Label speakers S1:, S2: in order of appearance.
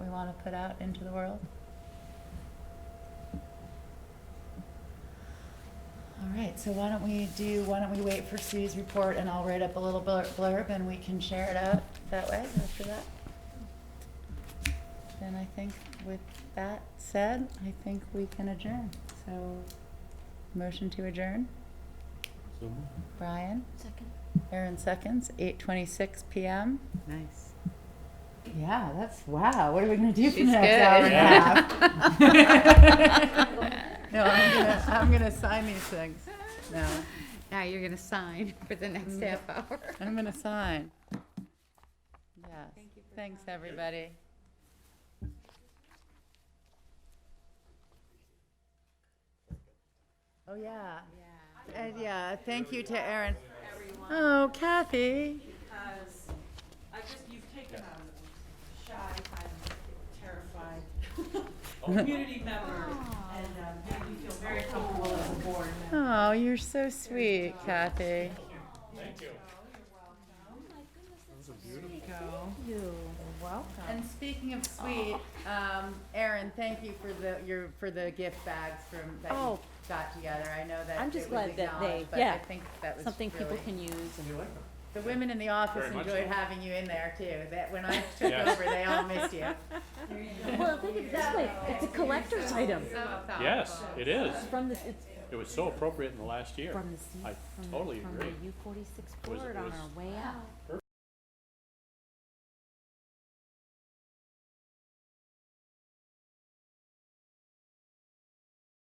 S1: want to put out into the world? All right, so why don't we do, why don't we wait for Sue's report and I'll write up a little blur- blurb and we can share it out that way after that? Then I think with that said, I think we can adjourn. So, motion to adjourn, Brian?
S2: Second.
S1: Aaron seconds, eight twenty-six PM.
S3: Nice.
S1: Yeah, that's, wow, what are we gonna do for the
S3: She's
S1: next
S3: good.
S1: hour and a
S3: Yeah.
S1: half? No, I'm gonna, I'm gonna sign these things. No,
S3: Now you're gonna sign for the next
S2: Mm.
S3: half hour.
S1: I'm gonna sign. Yes, thanks, everybody. Oh, yeah. And yeah, thank you to Aaron. Oh, Kathy.
S4: because I just, you've taken a shy, kind of terrified community member and um, made me feel very comfortable as a board member.
S1: Oh, you're so sweet, Kathy. And speaking of sweet, um, Erin, thank you for the, your, for the gift bags from, that you
S2: Oh.
S1: got together. I know that
S2: I'm
S1: it
S2: just
S1: was
S2: glad that they-
S1: acknowledged, but I
S2: yeah,
S1: think that was
S2: Something people
S1: really-
S2: can use and
S1: The women in the office
S5: Very much
S1: enjoyed
S5: so.
S1: having you in there too. That, when I took
S5: Yes.
S1: over, they all missed you.
S2: Well, think of it this way, it's a collector's item
S5: Yes, it is.
S2: from the, it's
S5: It was so appropriate in the last year.
S2: from the, C-
S5: I
S2: from the,
S5: totally
S2: from
S5: agree.
S2: the U forty-six
S5: Was-
S2: board on
S5: was-
S2: our way out.